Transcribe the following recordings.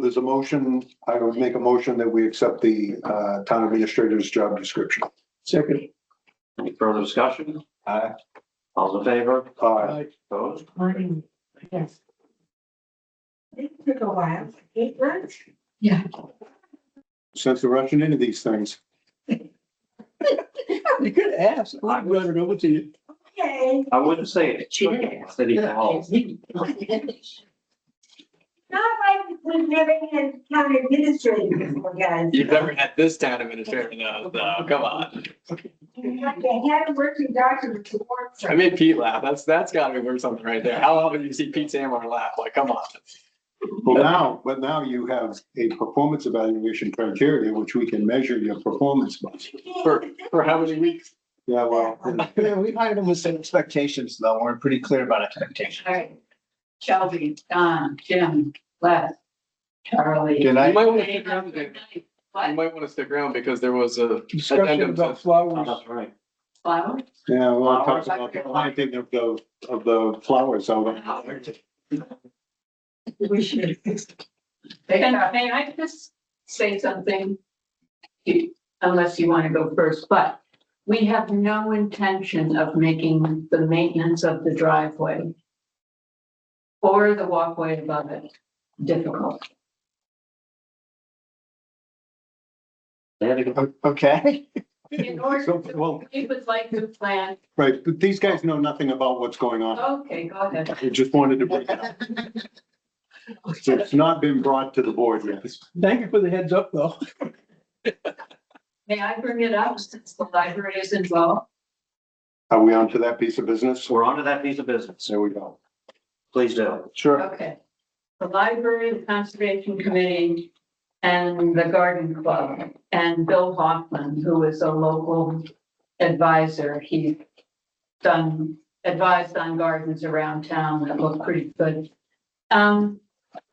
There's a motion, I would make a motion that we accept the uh, town administrator's job description. Second. Any further discussion? Aye. All in favor? Aye. Opposed? Morning, yes. It took a while, eight months. Yeah. Since we're rushing into these things, You could ask, I'll run it over to you. Okay, I wouldn't say it. She did. City Hall. not like we've never had town administrator before, guys. You've never had this town administrator, though, though, come on. Like they had a working document to work I from. made Pete laugh, that's, that's gotta be worth something right there, how often do you see Pete Samar laugh, like, come on. well now, but now you have a performance evaluation criteria, which we can measure your performance by. For, for how many weeks? Yeah, well, Yeah, we hired him with some expectations, though, we're pretty clear about expectations. All right. Shelby, Don, Jim, Les, Charlie. Good You night. might wanna stick around, Dave. you What, might wanna stick around because there was a. Discussion addendum about to- flowers. That's right. flower? yeah, well, I'm talking about the planting of the, of the flowers, so. We should. Can, may I just say something? You- Unless you want to go first, but we have no intention of making the maintenance of the driveway or the walkway above it difficult. They had to go- Okay. In order So, to, well, we would like to plan, right, but these guys know nothing about what's going on. okay, go ahead. I just wanted to bring it up. So it's not been brought to the board yet. Thank you for the heads up, though. May I bring it up since the library is involved? Are we on to that piece of business? We're on to that piece of business. There we go. Please do. Sure. Okay. The library, the conservation committee, and the garden club, and Bill Hoffman, who is a local advisor. He's done, advised on gardens around town that look pretty good. Um,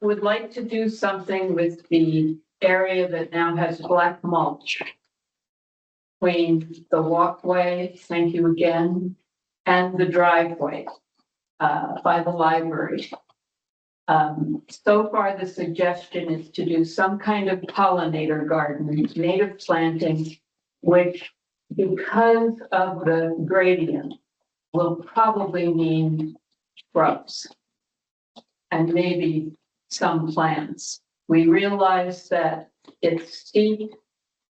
would like to do something with the area that now has black mulch between the walkway, thank you again, and the driveway uh, by the library. Um, so far, the suggestion is to do some kind of pollinator garden, native planting, which because of the gradient will probably mean shrubs. And maybe some plants. We realize that it's steep,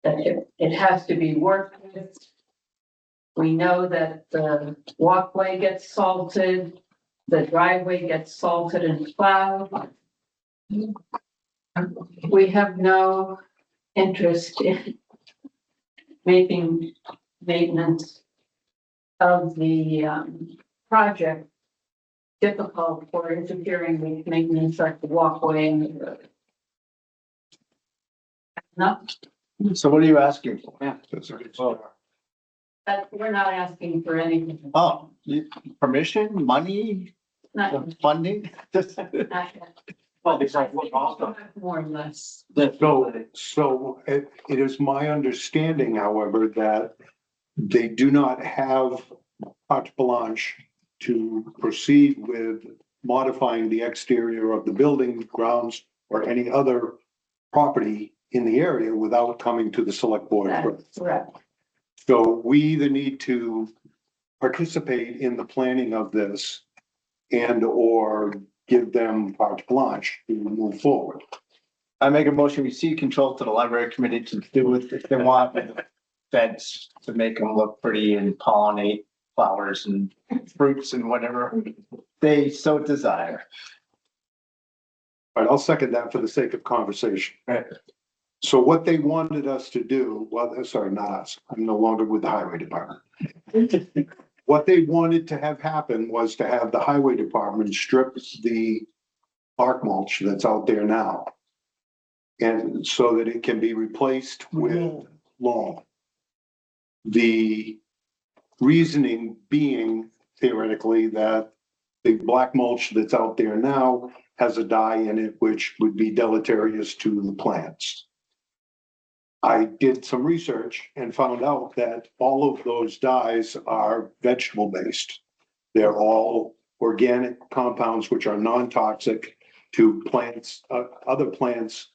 that it, it has to be worked with. We know that the walkway gets salted the driveway gets salted and plowed. We have no interest in making maintenance of the um, project difficult or interfering with maintenance like the walkway and the road. No, So what are you asking for? That's all right. that, we're not asking for anything. Oh, you- permission, money, Not, funding? not. Well, besides what also. More or less. So, so it, it is my understanding, however, that they do not have carte blanche to proceed with modifying the exterior of the building grounds or any other property in the area without coming to the select board. first. That's correct. So we either need to participate in the planning of this and or give them carte blanche to move forward. I make a motion, we see control to the library committee to do with, if they want, with the fence to make them look pretty and pollinate flowers and fruits and whatever they so desire. All right, I'll second that for the sake of conversation. Right. So what they wanted us to do, well, uh, sorry, not us, I'm no longer with the highway department. What they wanted to have happen was to have the highway department strip the bark mulch that's out there now. And so that it can be replaced with lawn. The reasoning being theoretically that the black mulch that's out there now has a dye in it which would be deleterious to the plants. I did some research and found out that all of those dyes are vegetable based. They're all organic compounds which are non-toxic to plants, uh, other plants